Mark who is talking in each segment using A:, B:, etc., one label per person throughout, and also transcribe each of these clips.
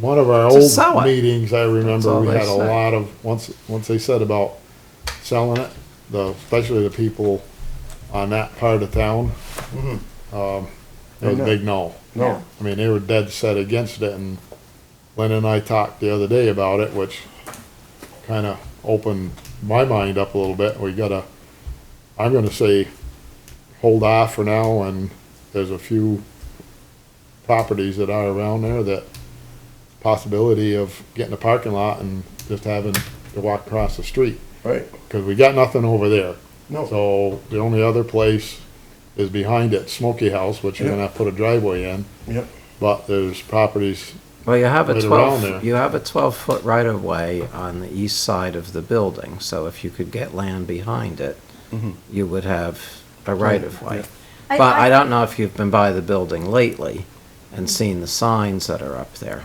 A: one of our
B: To sell
A: old
B: it.
A: meetings, I
B: That's
A: remember,
B: all
A: we
B: they
A: had a
B: say.
A: lot of, once, once they said about selling it, the, especially the people on that part of town. Um, it was a big no.
C: No.
A: I mean, they were dead set against it and Lynn and I talked the other day about it, which kinda opened my mind up a little bit. We gotta, I'm gonna say, hold off for now and there's a few properties that are around there that possibility of getting a parking lot and just having to walk across the street,
C: Right,
A: cause we got nothing over there.
C: no,
A: So the only other place is behind it, Smoky House, which you're
C: Yeah.
A: gonna have to put a driveway in,
C: yep,
A: but there's properties,
B: Well, you have a
A: Right around there.
B: twelve, you have a twelve-foot right-of-way on the east side of the building, so if you could get land behind it,
C: Mm-hmm.
B: you would have a right-of-way.
D: I-
B: But I
D: I- Mm-hmm.
B: don't know if you've been by the building lately and seen the signs that are up there.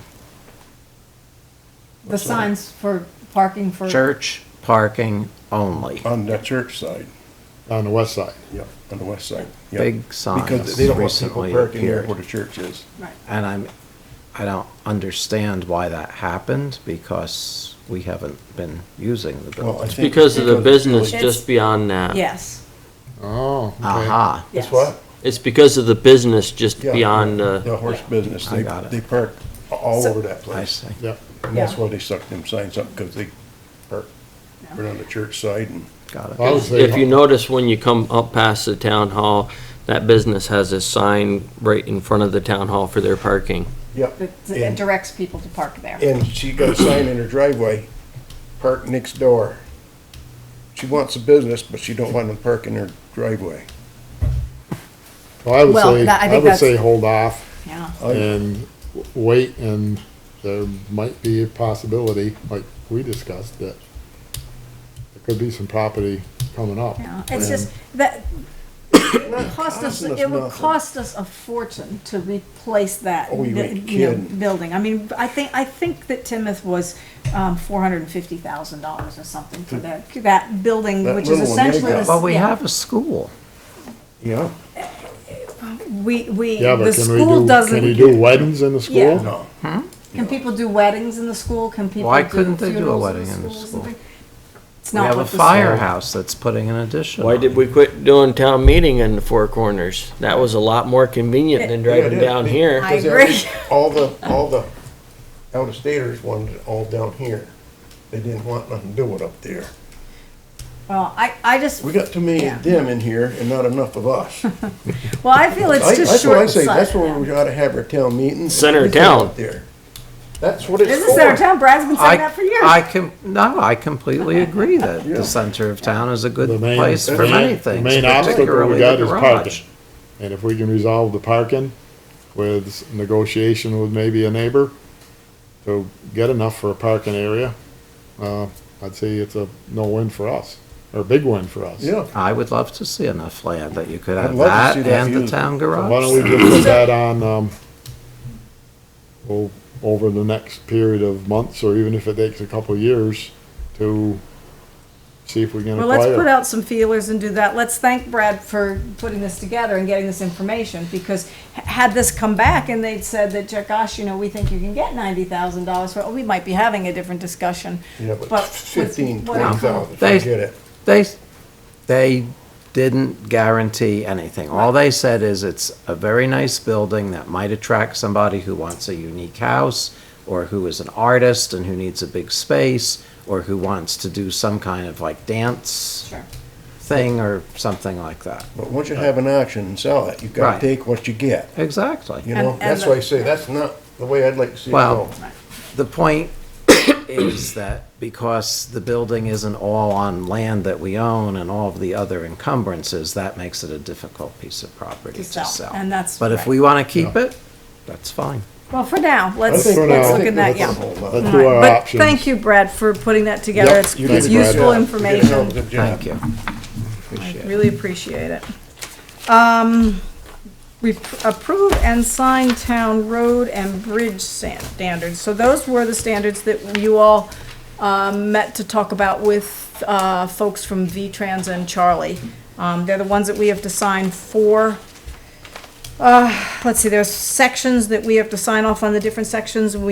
D: The signs for parking for.
B: Church parking only,
C: on the church side,
A: on the west side.
C: yep, on the west side, yep.
B: big
C: Because
B: signs
C: they don't want people
B: recently
C: parking there
B: appeared.
C: where the church is.
D: Right.
B: And I'm, I don't understand why that happened, because we haven't been using the
C: Well, I
B: building.
C: think
E: Because of the business
D: It's-
E: just beyond that.
D: Yes.
A: Oh, okay.
E: Uh-huh.
B: Aha.
C: That's
D: yes.
C: what?
E: It's because of the business just
C: Yeah.
E: beyond uh, the,
C: The horse business,
B: I
C: they,
B: got it.
C: they park a- all
D: So-
C: over that
B: I
C: place.
B: see.
A: Yeah,
C: And that's
D: Yeah.
C: why they suck them signs up, because they park right on the church side and,
B: Got
A: Well, I
B: it.
A: would say,
E: if you notice when you come up past the town hall, that business has a sign right in front of the town hall for their parking.
C: yep.
D: It it
C: And,
D: directs people to park there.
C: and she got a sign in her driveway, park next door. She wants a business, but she don't want them parking in her driveway.
A: well, I would
D: Well,
A: say,
D: that- I
A: I
D: think
A: would
D: that's-
A: say hold off
D: Yeah.
C: I-
A: and w- wait, and there might be a possibility, like we discussed, that there could be some property coming up.
D: Yeah. It's
A: And-
D: just that it would cost us,
C: costing us
D: it would
C: nothing.
D: cost us a fortune to replace that.
C: Oh, you
D: bu-
C: ain't
D: you know,
C: kidding.
D: Building. I mean, I think, I think that Timoth was, um, four hundred and fifty thousand dollars or something for that, that building,
C: That
D: which is
C: little one they
D: essentially.
C: got.
D: this-
B: Well, we
D: yeah.
B: have a school.
C: Yeah.
D: We, we,
A: Yeah,
D: the
A: but can we
D: school
A: do, can we
D: doesn't, e-,
A: do weddings in the
D: Yeah.
A: school?
C: No,
D: can people do weddings in the school? Can people
B: Why
D: do
B: couldn't they do a
D: funerals
B: wedding in the
D: schools and
B: school?
D: things? It's
B: We
D: not
B: have a
D: what the school-
B: firehouse that's putting an addition
E: Why
B: on.
E: did we quit doing town meeting in the Four Corners? That was a lot more convenient than
C: Yeah,
E: driving
C: it is.
E: down here.
D: I agree.
C: All the, all the out-of-staters wanted it all down here. They didn't want nothing to do with up there.
D: Well, I, I just,
C: We got too many
D: Yeah.
C: of them in here and not enough of us.
D: well, I feel
C: I-
D: it's just
C: That's what I
D: short
C: say, that's
D: sighted.
C: where we ought to have our town meetings.
E: Center of
C: Everything
E: town.
C: out there. That's what it's
D: This is our
C: for.
D: town, Brad's been
B: I,
D: saying that for years.
B: I can, no, I completely agree that the center of town is a
A: The
B: good
A: main-
B: place
A: the
B: for
A: main-
B: many
A: The
B: things,
A: main obstacle we
B: particularly
A: got
B: the
A: is
B: garage.
A: parking. And if we can resolve the parking with s- negotiation with maybe a neighbor to get enough for a parking area, uh, I'd say it's a no-win for us, or a big win for us.
C: Yeah,
B: I would love to see enough land that you could
C: I'd
B: have
C: love to
B: that
C: see that
B: and the
C: used.
B: town
A: Why don't
B: garage.
A: we just put that on, um, o- over the next period of months, or even if it takes a couple of years, to see if we can
D: Well, let's put
A: acquire.
D: out some feelers and do that. Let's thank Brad for putting this together and getting this information, because h- had this come back and they'd said that, "Ja- gosh, you know, we think you can get ninety thousand dollars for, it," we might be having a different discussion.
C: yeah, but
D: But with
C: fifteen,
D: what-
C: twenty thousand,
B: They-
C: forget it.
B: They, they didn't guarantee anything. All they said is it's a very nice building that might attract somebody who wants a unique house or who is an artist and who needs a big space or who wants to do some kind of like dance
D: Sure.
B: thing or something like that.
C: But once you have an auction and sell it, you've got
B: Right.
C: to take what you get,
B: Exactly.
C: you
D: And-
C: know?
D: and
C: That's
D: the-
C: why I say, that's not the way I'd like to see it
B: Well-
C: go.
B: The point is that because the building isn't all on land that we own and all of the other encumbrances, that makes it a difficult piece of property
D: To
B: to
D: sell,
B: sell.
D: and that's
B: But if
D: right.
B: we want to keep it, that's fine.
D: Well, for now, let's,
A: think-
D: let's
A: for
D: look
A: now-
D: at that,
C: That's a
D: yeah.
C: whole lot.
A: Let's
D: All
A: do
D: right.
A: our
D: But
A: options.
D: Thank you, Brad, for putting that together. It's
C: You did
D: it's
C: a good
D: useful
C: job. You did a hell of a
D: information.
C: good job.
B: Thank you. Appreciate it.
D: Really appreciate it. Um, we approve and sign town road and bridge stan- standards. So those were the standards that you all, um, met to talk about with, uh, folks from V-Trans and Charlie. Um, they're the ones that we have to sign for. Uh, let's see, there's sections that we have to sign off on the different sections. We